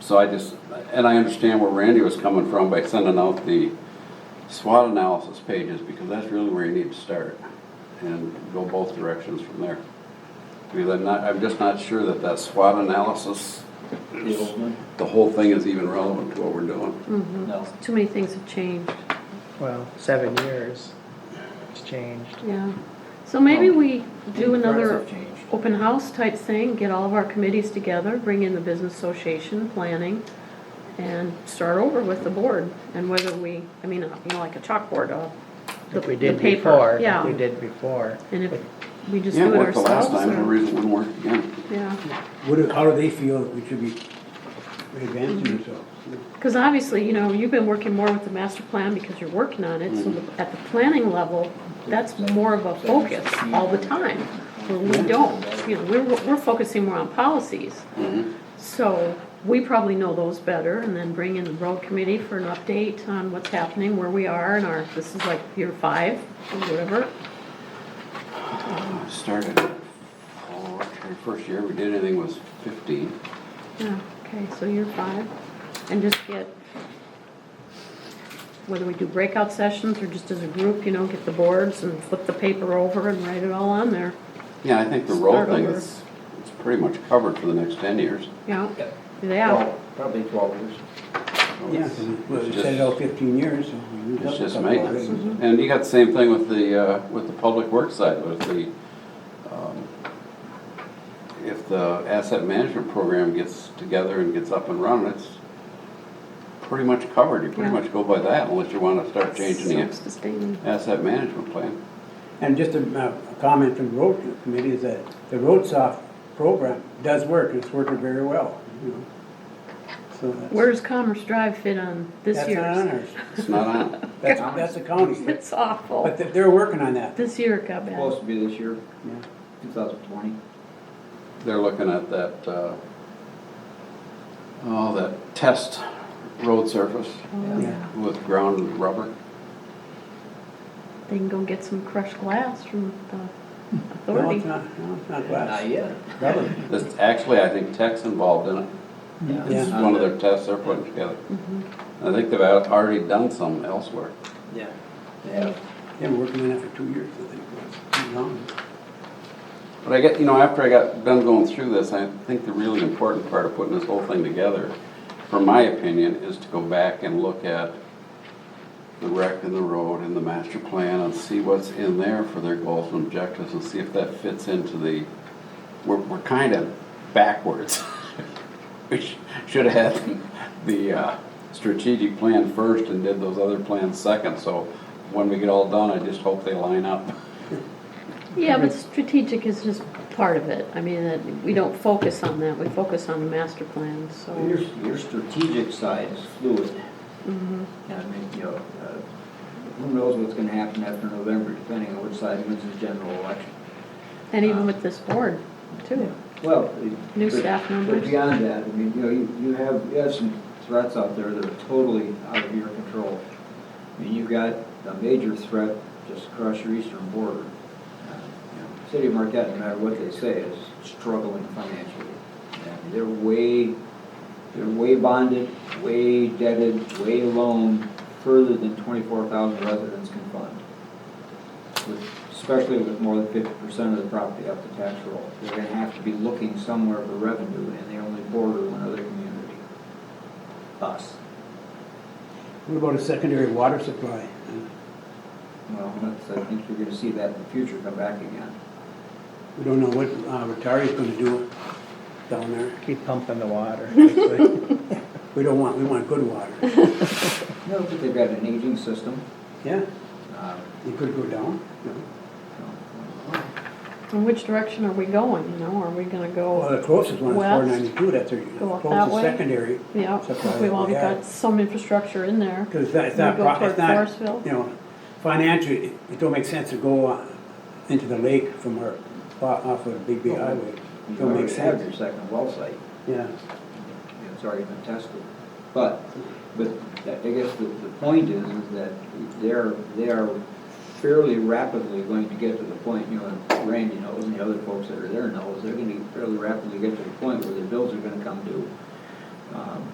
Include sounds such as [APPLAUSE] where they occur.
So I just, and I understand where Randy was coming from by sending out the SWOT analysis pages, because that's really where you need to start, and go both directions from there. Because I'm not, I'm just not sure that that SWOT analysis, The old one? the whole thing is even relevant to what we're doing. No. Too many things have changed, Well, seven years, it's changed. yeah. So maybe we do Prices another have changed. open house type thing, get all of our committees together, bring in the business association, planning, and start over with the board, and whether we, I mean, uh, you know, like a chalkboard, uh, the If we the did paper, before, if we yeah. did before. And if we just Yeah, it do it worked the last ourselves, time, no or, reason it wouldn't work again. yeah. What, do- how do they feel that we should be advancing ourselves? Because obviously, you know, you've been working more with the master plan because you're working on it, so Mm-hmm. the- at the planning level, that's more of a focus all the time. Where we don't, you know, we're, we're focusing more on policies. Mm-hmm. So we probably know those better and then bring in the road committee for an update on what's happening, where we are and our, this is like year five or whatever. Started, oh, our first year we did anything was fifteen. Yeah, okay, so you're five, and just get, whether we do breakout sessions or just as a group, you know, get the boards and flip the paper over and write it all on there, Yeah, I think the road Start thing over. is, it's pretty much covered for the next ten years. Yeah, Yeah. Yeah, Well, Probably twelve years. So Yeah, it's- well, it's we set it just- out fifteen years, so we moved up It's a just couple maintenance. already. And you got the same thing with the, uh, with the public works side, with the, um, if the asset management program gets together and gets up and running, it's pretty much covered. You pretty Yeah. much go by that unless you wanna start changing the Self-sustaining. asset management plan. Mm-hmm. And just a, uh, a comment from the road committee is that the road soft program does work, and it's working very well, you know. So that's. Where does Commerce Drive fit on this That's not on year's? [LAUGHS] ours, It's not [LAUGHS] on. that's, that's the county, It's awful, but they- they're working on that. this year it got bad, Supposed to be this year, yeah. two thousand twenty. They're looking at that, uh, oh, that test road surface Oh, Yeah. with ground rubber. they can go get some crushed glass from the No, authority. Hmm. it's not, no, it's not Not glass, yet. rubber. That's actually, I think Tech's involved in it. Yeah. This is Not one of yet. their tests they're putting together. I think they've al- already done some elsewhere. Yeah. Yeah. They've been working on that for two years, I think, it was, Too long. But I get, you know, after I got done going through this, I think the really important part of putting this whole thing together, from my opinion, is to go back and look at the rec and the road and the master plan and see what's in there for their goals and objectives and see if that fits into the, we're, we're kind of backwards. [LAUGHS] We sh- should have had the uh, strategic plan first and did those other plans second, so when we get all done, I just hope they line up. Yeah, but strategic is just part of it. I mean, that, we don't focus on that, we focus on the master plan, Your, so. your strategic side is fluid. And I mean, you know, uh, who knows what's gonna happen after November, depending on which side wins the general election. And even with this board, too. Well. it- New but- staff But members. beyond that, I mean, you know, you, you have, you have some threats out there that are totally out of your control. I mean, you've got a major threat just across your eastern border. Uh, you know, City of Marquette, no matter what they say, is struggling financially. I mean, They're way, they're way bonded, way debted, way loaned, further than twenty-four thousand residents can fund. With- Especially with more than fifty percent of the property up to tax roll. They're gonna have to be looking somewhere for revenue, and they only border one other community. Us. What about a secondary water supply? Well, that's, I think you're gonna see that in the future come back again. We don't know what uh, Rotari's gonna do down [LAUGHS] there. Keep pumping the water. We don't want, we want good water. No, but they've got an aging system. Yeah, um, it could go down. you In which direction are we going, you know, are we gonna Oh, Well, go, the closest one is West. four ninety-two, that's our Go up that closest way. secondary. yeah, Supply, we've already yeah. got some infrastructure in there. Because it's not, it's not, We go pro- toward it's not, Forestville? you know, financially, it- it don't make sense to go uh, into the lake from our, off of Big B Highway. know, You Don't make already have sense, your second well site. yeah. you know, it's already been tested. But, but that- I guess the, the point is, is that they're, they are fairly rapidly going to get to the point, you know, and Randy knows and the other folks that are there knows, they're gonna fairly rapidly get to the point where their bills are gonna come due. Um,